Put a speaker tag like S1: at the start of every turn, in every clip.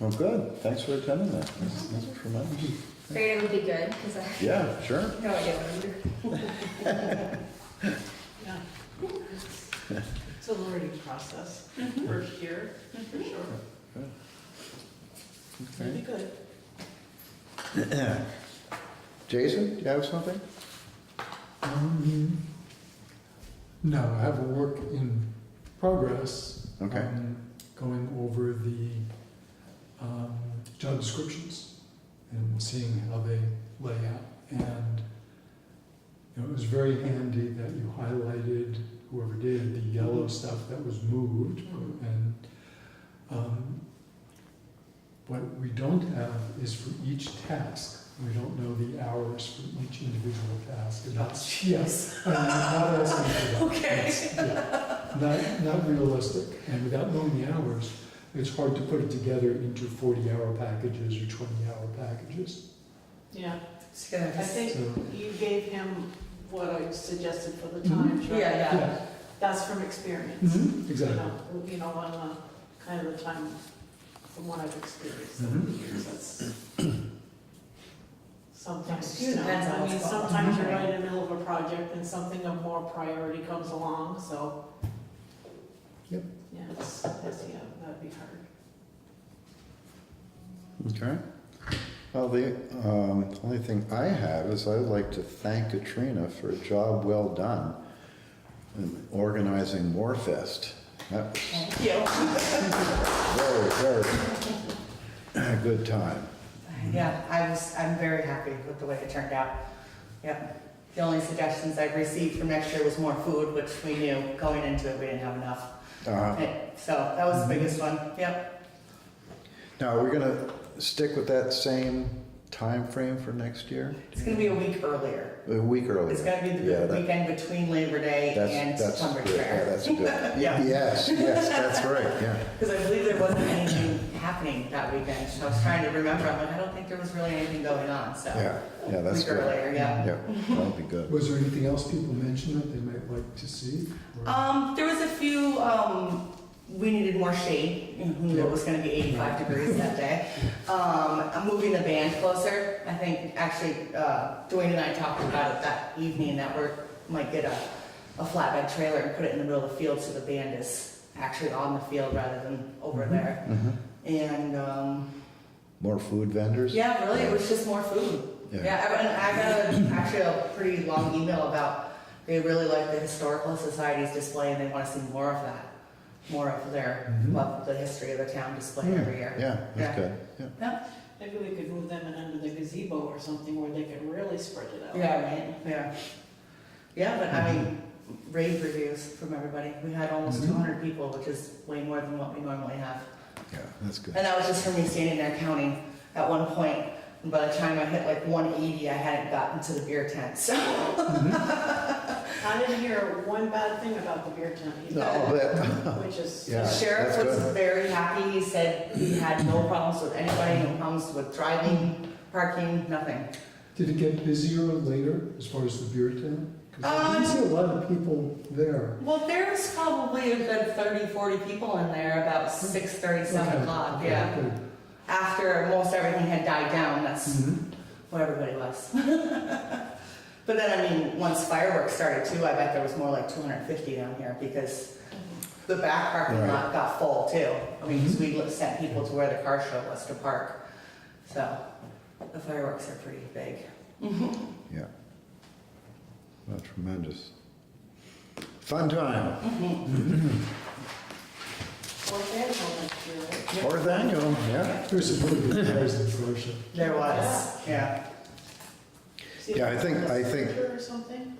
S1: Well, good, thanks for attending that, That's- that's tremendous.
S2: Figured it would be good, because I have
S1: Yeah, sure.
S2: no idea what to do.
S3: Yeah. It's a learning process. We're here, for sure. It'll Mm-hmm. be good.
S1: Jason, do you have something?
S4: Um, No, I have a work in progress.
S1: Okay.
S4: um, Going over the um, job descriptions and seeing how they lay out. And you know, it was very handy that you highlighted, whoever did, the yellow stuff that was moved.
S3: Mhm.
S4: And um, what we don't have is for each task, we don't know the hours for each individual task. And that's- Yes. I'm not asking for that.
S3: Okay.
S4: It's- yeah, Not, not realistic, and without knowing the hours, it's hard to put it together into forty-hour packages or twenty-hour packages.
S3: Yeah,
S2: Just gonna
S3: I
S2: have to-
S3: think
S4: So,
S3: you gave him what I suggested for the times, right?
S2: Yeah,
S4: yeah,
S3: That's from experience.
S4: mhm,
S3: You
S4: exactly.
S3: know, you know, on uh, kind of the time, from what I've experienced over the years, that's sometimes, you know,
S2: Depends on
S3: I mean,
S2: what's going on,
S3: sometimes you're
S2: right?
S3: right in the middle of a project and something of more priority comes along, so.
S4: Yep.
S3: Yeah, it's, that's, yeah, that'd be hard.
S1: Okay. Well, the um, only thing I have is I would like to thank Katrina for a job well done in organizing Warfest. That was very, very good time.
S5: Yeah, I was, I'm very happy with the way it turned out. Yep. The only suggestions I've received for next year was more food, which we knew going into it, we didn't have enough.
S1: Uh,
S5: Okay, So that was
S1: Mm-hmm.
S5: the biggest one, yep.
S1: now, are we going to stick with that same time frame for next year?
S5: It's gonna be a week earlier.
S1: A week earlier.
S5: It's gonna be
S1: Yeah,
S5: the
S1: that-
S5: weekend between Labor Day and
S1: that's, that's
S5: September
S1: good. Yeah,
S5: fair.
S1: that's good.
S5: Yeah.
S1: Yes, yes, that's right. Yeah.
S5: Because I believe there wasn't anything happening that weekend, so I was trying to remember, I'm like, I don't think there was really anything going on, so.
S1: Yeah, yeah, that's
S5: Week
S1: good.
S5: earlier, yeah.
S1: that'll be good.
S4: Was there anything else people mentioned that they might like to see? or-
S5: Um, there was a few, um, we needed more shade, who knew it was gonna be eighty-five degrees that day. Um, I'm moving the band closer, I think, actually, uh, Dwayne and I talked about it that evening, that we're, might get a, a flatbed trailer and put it in the middle of the field so the band is actually on the field rather than over
S4: Mhm.
S5: there.
S1: Mhm.
S5: And, um,
S1: More food vendors?
S5: yeah, really, it was just more food. Yeah, I- and I got a- actually a pretty long email about, they really like the historical society's display and they want to see more of that. More of their,
S4: Mhm.
S5: love the history of the town display
S1: Hmm,
S5: every year.
S1: Mm-hmm. Yeah, that's
S5: Yeah.
S1: good. Yeah.
S3: Maybe we could move them in under the gazebo or something where they could really spread it out.
S5: Yeah, right, yeah. Yeah, but I mean,
S1: Mm-hmm.
S5: rave reviews from everybody. We had almost
S4: Mhm.
S5: two hundred people, which is way more than what we normally have.
S1: Yeah, that's good.
S5: And that was just for me standing there counting at one point. And by the time I hit like one eighty, I hadn't gotten to the beer tent, so.
S3: I didn't hear one bad thing about the beer tent either.
S1: No, but,
S3: Which is,
S1: Yeah,
S5: The sheriff
S1: that's
S5: was
S1: good.
S5: very happy, he said he had no problems with anybody, no problems with driving, parking, nothing.
S4: Did it get busier later as far as the beer tent? Because I didn't
S5: Um,
S4: see a lot of people there.
S5: Well, there's probably a good 30, 40 people in there about six thirty, seven
S4: Okay,
S5: o'clock,
S4: okay,
S5: yeah.
S4: good.
S5: After most everything had died down, that's
S4: Mhm.
S5: what everybody was. But then, I mean, once fireworks started too, I bet there was more like two hundred and fifty down here because the back parking
S1: Right. Mm-hmm.
S5: lot got full too. I mean, 'cause we li- sent people to where the car show was to park. So the fireworks are pretty big.
S1: Yeah. Well, tremendous. Fun time.
S3: well, they had one next year, right?
S1: Fourth annual, yeah.
S4: There's some really good players in Flushing.
S5: There was, yeah.
S3: See if
S1: Yeah, I
S3: it's
S1: think-
S3: a
S1: I think-
S3: Sprinter or something?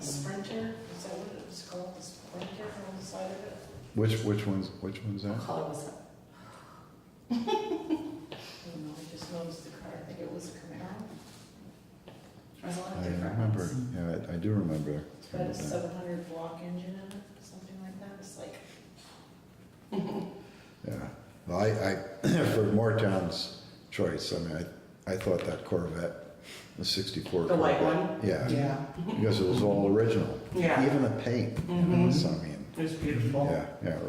S3: Sprinter, is that what it was called, the sprinter on the side of it?
S1: Which, which one's, which one's
S5: What
S1: that?
S5: color was it?
S3: I don't know, I just noticed the car, I think it was a Camaro,
S5: There was a lot of
S1: I
S5: different
S1: remember,
S5: ones.
S1: yeah, I- I do remember.
S3: it's got a
S1: that.
S3: seven hundred block engine in it, something like that, it's like,
S1: Yeah. Well, I, I, for Moretown's choice, I mean, I, I thought that Corvette, the sixty-four
S5: The
S1: Corvette.
S5: white one?
S1: Yeah,
S5: Yeah.
S1: because it was all original.
S5: Yeah.
S1: Even the paint,
S5: Mhm.
S1: so I mean,
S5: It was beautiful.
S1: yeah, yeah,